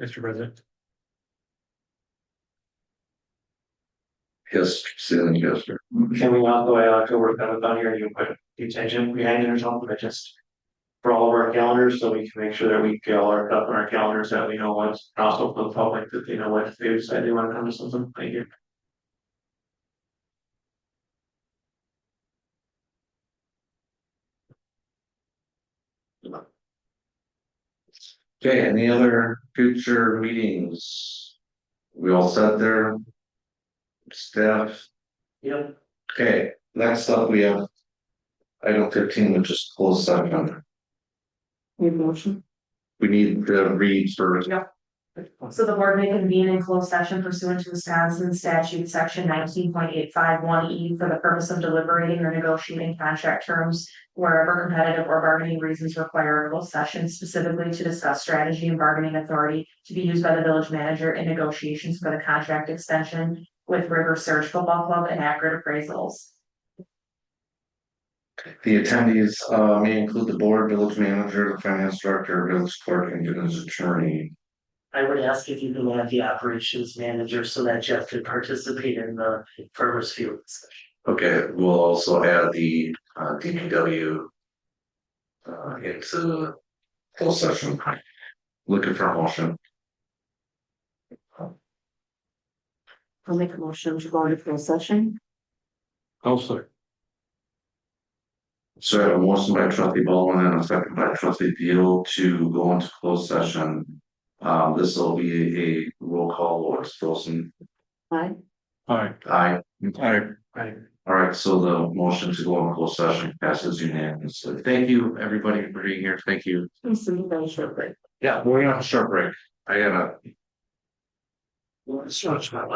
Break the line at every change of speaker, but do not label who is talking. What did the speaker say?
Mr. President.
Yes, Sealing yes, sir.
Can we not go by October seventh on here, you put the attention behind it or something, but just. For all of our calendars, so we can make sure that we get all our stuff on our calendars, that we know what's, and also for the public, that they know what, if they decide they wanna come to something, thank you.
Okay, any other future meetings? We all sat there? Staff,
Yep.
okay, next up we have. Item fifteen, which is closed session.
Need a motion?
We need to read first.
So the board may convene in closed session pursuant to Wisconsin statute section nineteen point eight five one E for the purpose of deliberating or negotiating contract terms. Wherever competitive or bargaining reasons require a closed session specifically to discuss strategy and bargaining authority to be used by the village manager in negotiations for the contract extension. With River Surge Football Club and accurate appraisals.
The attendees uh may include the board, village manager, the finance director, village clerk, and village attorney.
I would ask if you could have the operations manager so that Jeff could participate in the farmer's field discussion.
Okay, we'll also add the uh DPW. Uh into closed session. Looking for a motion.
I'll make a motion to go into closed session.
Also.
So I have a motion by trustee Baldwin and a second by trustee Deal to go into closed session. Um, this will be a roll call, Lawrence Wilson.
Aye.
Alright.
Aye.
Alright. Right.
All right, so the motion to go into closed session passes unanimously. Thank you, everybody, for being here. Thank you.
I'm sending that short break.
Yeah, we're gonna have a short break. I gotta.
Well, it's not my life.